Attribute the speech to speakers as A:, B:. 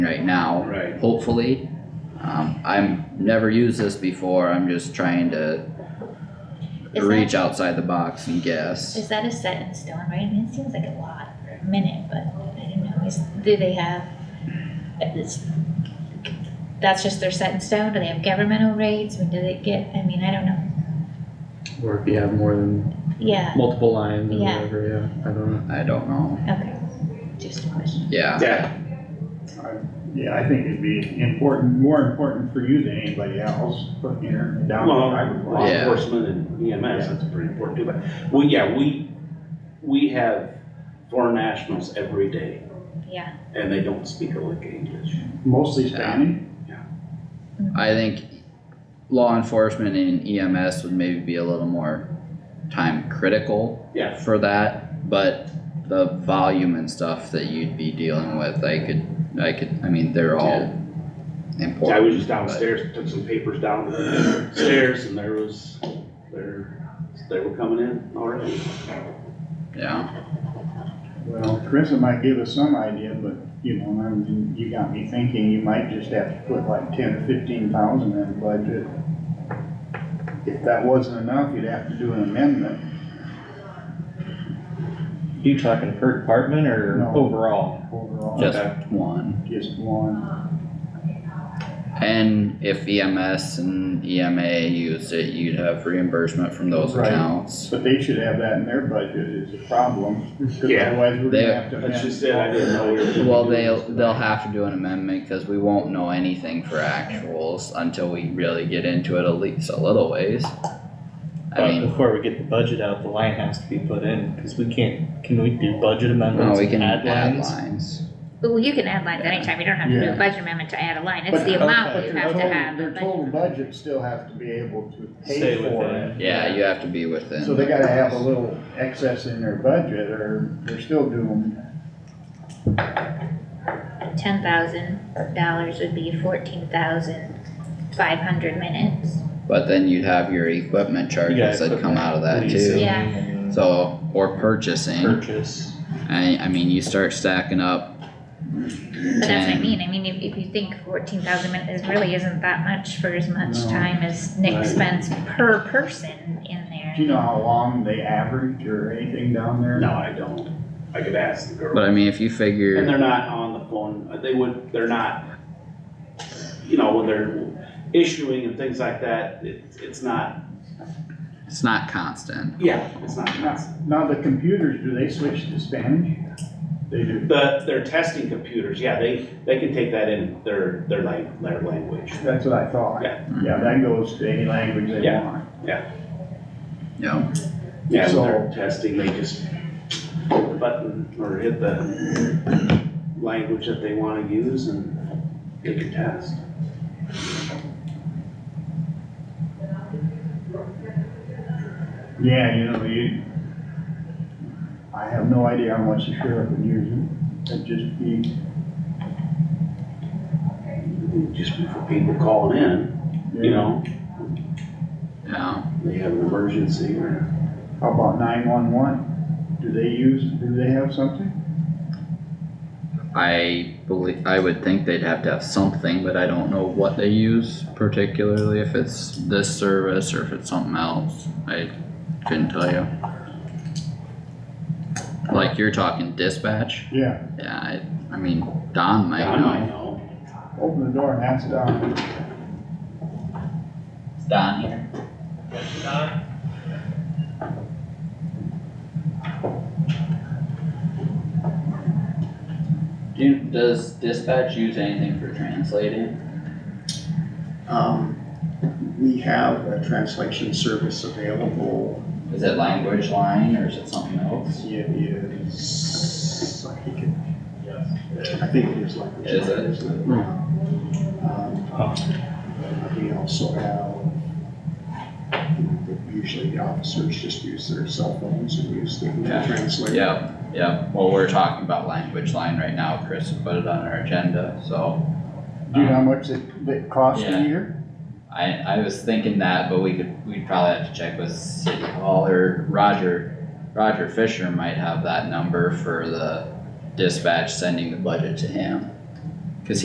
A: right now.
B: Right.
A: Hopefully, um, I'm, never used this before, I'm just trying to
C: Is that-
A: reach outside the box and guess.
C: Is that a set in stone, right? I mean, it seems like a lot for a minute, but I don't know, is, do they have, it's, that's just their set in stone, do they have governmental rates, I mean, do they get, I mean, I don't know,
D: Or if you have more than
C: yeah,
D: multiple lines or
C: Yeah.
D: whatever, yeah, I don't know.
A: I don't know,
C: okay, just a question.
A: yeah,
B: Yeah.
E: Yeah, I think it'd be important, more important for you than anybody else, putting your down.
B: Well,
E: I would
B: law
E: want.
A: Yeah.
B: enforcement and EMS, that's pretty important too, but, well, yeah, we, we have foreign nationals every day
C: Yeah,
B: and they don't speak a lick of English.
E: Mostly Spanish,
A: I think law enforcement and EMS would maybe be a little more time critical
B: Yeah.
A: for that, but the volume and stuff that you'd be dealing with, I could, I could, I mean, they're all important.
B: I was just
A: but-
B: downstairs, took some papers downstairs and there was, there, they were coming in already.
A: Yeah,
E: well, Carissa might give us some idea, but, you know, I mean, you got me thinking, you might just have to put like ten or fifteen thousand in the budget. If that wasn't enough, you'd have to do an amendment
F: You talking per department or
E: No.
F: overall?
E: overall,
A: just one.
E: just one,
A: And if EMS and E EMA used it, you'd have reimbursement from those
E: Right.
A: accounts.
E: but they should have that in their budget is a problem, 'cause
B: Yeah.
E: otherwise we're
A: They-
E: gonna have to.
B: That's
E: amend
B: just it, I didn't know we were.
A: Well, they'll, they'll have to do an amendment, cause we won't know anything for actuals until we really get into it at least a little ways. I
F: But
A: mean,
F: before we get the budget out, the line has to be put in, cause we can't, can we do budget
A: no,
F: amendments
A: Oh, we can
F: and add
A: add
F: lines?
A: lines.
C: well, you can add lines anytime, you don't have to do
E: Yeah.
C: a budget amendment to add a line, it's
E: But-
C: the amount
F: okay.
C: you
E: Their
C: have to
E: total-
C: have.
E: Their
C: but-
E: total budget still has to be able to pay
F: Stay
E: for
F: within
E: it.
F: it.
A: Yeah, you have to be within.
E: So they gotta have a little excess in their budget or they're still doing,
C: ten thousand dollars would be fourteen thousand five hundred minutes.
A: But then you'd have your equipment charges
F: gotta
A: that
F: put
A: come out of that
F: Leasing
A: too.
C: Yeah.
F: and
A: So, or purchasing,
F: Purchase.
A: I, I mean, you start stacking up.
C: But that's what I
A: ten-
C: mean, I mean, if, if you think fourteen thousand minutes really isn't that much for as much
E: No.
C: time as Nick
B: Right.
C: spends per person in there.
E: do you know how long they average or anything down there?
B: No, I don't. I could ask the girl.
A: But I mean, if you
B: And
A: figure,
B: they're not on the phone, uh, they would, they're not, you know, when they're issuing and things like that, it, it's not,
A: it's not constant.
B: yeah, it's not constant.
E: Now, the computers, do they switch to Spanish? They do.
B: The, their testing computers, yeah, they, they can take that in their, their lang, their language.
E: That's what I thought.
B: Yeah.
E: Yeah, that goes to any language they
B: Yeah.
E: want.
A: Yeah.
B: Yeah,
E: So-
B: when they're testing, they just hit the button or hit the language that they wanna use and they can test.
E: Yeah, you know, you, I have no idea how much the sheriff would use it. It'd just be,
B: Just for people calling in, you know,
A: Yeah,
B: they have an emergency or.
E: How about nine-one-one? Do they use, do they have something?
A: I believe, I would think they'd have to have something, but I don't know what they use particularly, if it's this service or if it's something else. I couldn't tell you. Like you're talking dispatch,
E: Yeah,
A: yeah, I, I mean, Don might
B: I might
A: know.
B: know.
E: open the door and that's down.
A: Don here. Do, does dispatch use anything for translating?
G: Um, we have a translation service available.
A: Is it language line or is it something else?
G: It is, I think it, I think it is like.
A: Is it?
G: isn't it? Um, We also have, usually the officers just use their cell phones and use the
A: Yeah.
G: translator.
A: Yeah, yeah, well, we're talking about language line right now, Chris has put it on our agenda, so.
E: Do you know how
A: um,
E: much it, it costs
A: Yeah.
E: a year?
A: I, I was thinking that, but we could, we'd probably have to check with City Hall or Roger, Roger Fisher might have that number for the dispatch sending the budget to him.